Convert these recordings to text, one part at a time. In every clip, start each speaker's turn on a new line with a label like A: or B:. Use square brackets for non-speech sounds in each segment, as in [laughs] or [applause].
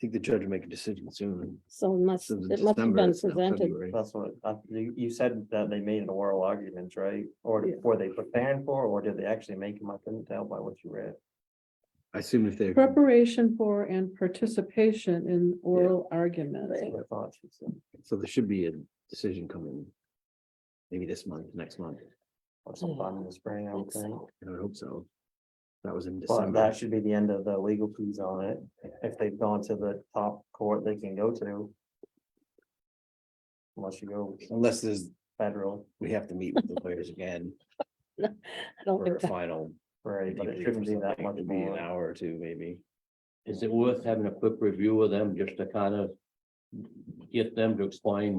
A: think the judge will make a decision soon.
B: So it must,
A: Since
B: it must have
A: December,
B: been
A: it's now
B: presented.
A: February.
C: That's what, uh, you, you said that they made an oral argument, right? Or
B: Yeah.
C: were they preparing for, or did they actually make them? I couldn't tell by what you read.
A: I assume if they're,
D: Preparation for and participation in oral arguments.
C: That's what I thought she said.
A: so there should be a decision coming. Maybe this month, next month,
C: Or sometime in the spring, I would think.
A: I would hope so. That was in
C: But
A: December.
C: that should be the end of the legal fees on it. If they've gone to the top court they can go to. Unless you go
A: Unless there's,
C: federal,
A: we have to meet with the lawyers
B: [laughs]
A: again
B: I don't
A: for
B: think
A: a
B: that,
A: final.
C: right, but it
A: debrief or
C: shouldn't be that
A: something.
C: much
A: It'd be An
C: more.
A: hour or two, maybe.
E: Is it worth having a quick review of them just to kind of get them to explain?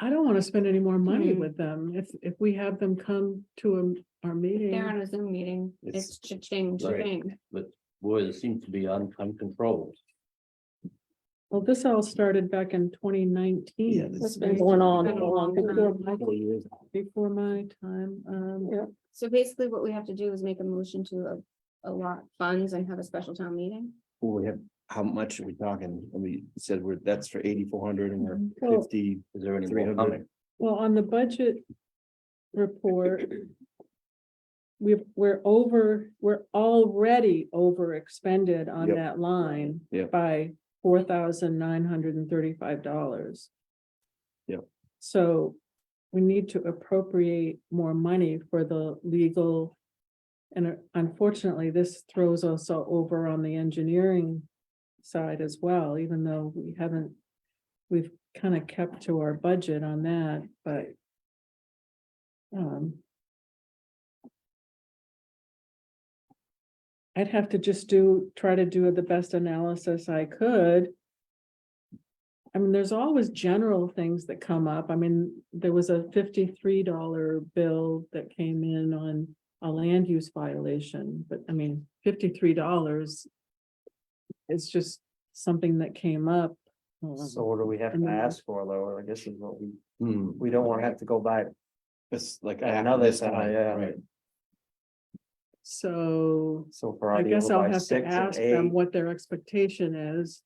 D: I don't want to spend any more money
B: Hmm.
F: Mm.
D: with them. If, if we have them come to um, our
F: They're on
D: meeting.
F: a Zoom meeting,
A: It's-
F: it's cha-ching,
E: Right.
F: cha-ching.
E: Boy, it seems to be un- uncontrolled.
D: Well, this all started back in twenty
A: Yeah,
D: nineteen.
A: this-
B: has been going on
F: Been a long
B: long.
F: time.
A: Couple of years.
D: Before my time, um,
B: Yeah.
F: So basically what we have to do is make a motion to a, a lot funds and have a special town meeting.
A: Well, We have, how much are we talking? And we said we're, that's for eighty-four hundred and we're
D: Well-
A: fifty,
E: Is there any
A: three
E: more
A: hundred.
E: coming?
D: well, on the budget report, we've, we're over, we're already over expended on
A: Yep.
D: that line
A: Yep.
D: by four thousand nine hundred and thirty-five dollars.
A: Yep.
D: So we need to appropriate more money for the legal. And unfortunately, this throws us all over on the engineering side as well, even though we haven't, we've kind of kept to our budget on that, but um, I'd have to just do, try to do the best analysis I could. I mean, there's always general things that come up. I mean, there was a fifty-three dollar bill that came in on a land use violation, but I mean, fifty-three dollars is just something that came up. Mm-hmm.
C: So what do we have to ask for though? I guess is what we,
A: Hmm,
C: we don't wanna have to go back
A: it's like. I have
C: another
A: this
C: time,
A: time,
C: yeah.
A: right.
D: So
C: So for.
D: I
C: our
D: guess
C: deal
D: I'll
C: by
D: have to
C: six and
D: ask them
C: eight,
D: what their expectation is.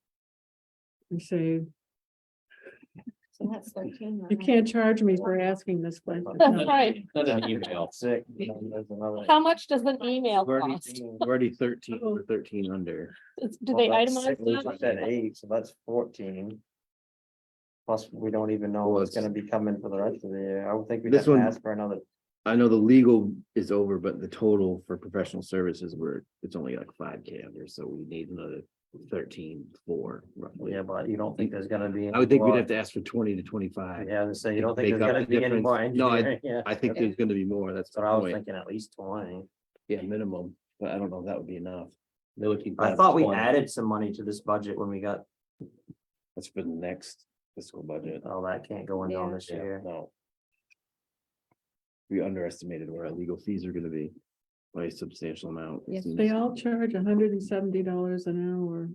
D: And say,
F: So that's thirteen.
D: you can't charge me for asking this question.
C: [laughs]
B: That's right.
E: Send an email.
C: Six, and then there's another.
B: How much does an email
A: We're already-
B: cost?
A: we're Already thirteen,
D: Oh.
A: we're thirteen under.
B: Is- Do
C: Well,
B: they
C: that's
B: itemize
C: six, we
B: that?
C: just said eight, so that's fourteen. Plus, we don't even know
A: Well,
C: what's
A: it's-
C: gonna be coming for the rest of the year. I would think we'd
A: This
C: have to
A: one-
C: ask for another.
A: I know the legal is over, but the total for professional services were, it's only like five K under, so we need another thirteen, four roughly.
C: Yeah, but you don't think there's gonna be.
A: I would think we'd have to ask for twenty to twenty-five.
C: Yeah, so you
A: to
C: don't think
A: make
C: there's
A: up
C: gonna
A: the
C: be any more.
A: difference. No, I-
C: [laughs] engineering, yeah.
A: I think there's gonna be more, that's
C: That's
A: the
C: what I was
A: point,
C: thinking, at least twenty.
A: yeah, minimum, but I don't know if that would be enough,
E: They would keep
C: I
E: that
C: thought we
E: going.
C: added some money to this budget when we got,
A: that's for the next fiscal budget.
C: oh, that can't go in on
F: Yeah.
C: this
A: Yeah,
C: year.
A: No. We underestimated where our legal fees are gonna be by a substantial amount.
F: Yes.
D: They all charge hundred and seventy dollars an hour.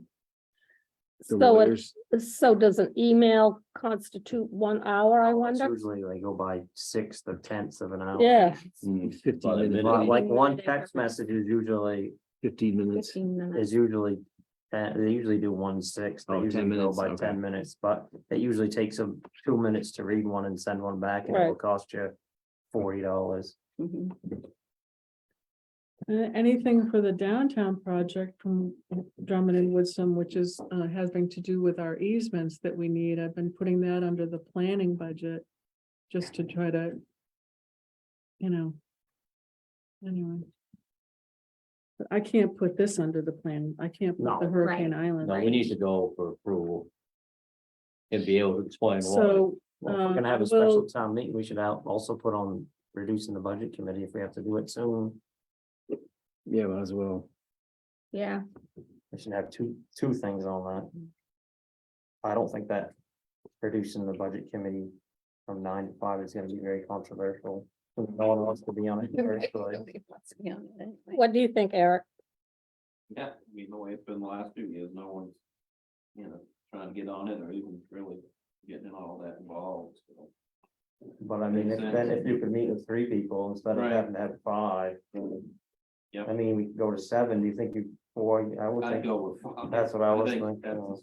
A: The
B: So, it-
A: lawyers-
B: so does an email constitute one hour, I
C: It's
B: wonder?
C: Usually they go by sixth or tenths of an hour.
B: Yeah,
A: Hmm, Fifteen
E: About a
A: minutes,
C: But
E: minute.
C: Like one
F: Minute.
C: text message is usually
A: fifteen minutes.
F: Fifteen minutes.
C: is usually, uh, they usually do one six, they
A: Oh, 10
C: usually go
A: minutes,
C: by
A: okay.
C: ten minutes, but it usually takes them two minutes to read one and send one back, and it will
B: Right.
C: cost you forty dollars.
F: Mhm.
D: Uh, anything for the downtown project from Drummond and Woodson, which is, uh, having to do with our easements that we need. I've been putting that under the planning budget. Just to try to. You know. Anyway. But I can't put this under the plan. I can't put
C: No.
D: the
C: Right.
D: Hurricane Island.
E: No, we need to go for approval. And be able to explain why.
D: So,
C: Well, if we're gonna have
D: Uh,
C: a special
D: well-
C: town meeting, we should out, also put on reducing the budget committee if we have to do it soon.
A: Yeah, might as well.
F: Yeah,
C: We should have two, two things on that. I don't think that reducing the budget committee from nine to five is gonna be very controversial. No one wants to be on it first, so-
F: [laughs]
B: what do you think, Eric?
G: Yeah, I mean, the way it's been the last few years, no one's, you know, trying to get on it or even really getting all that involved. so.
C: But I mean, if
G: Makes
C: then
G: sense.
C: if you could meet with three people instead of
G: Right.
C: having to have five.
G: Yep.
C: I mean, we could go to seven, do you think you, four, I would
G: I'd
C: think,
G: go with.
C: that's what I was
G: think
C: thinking.
G: that's the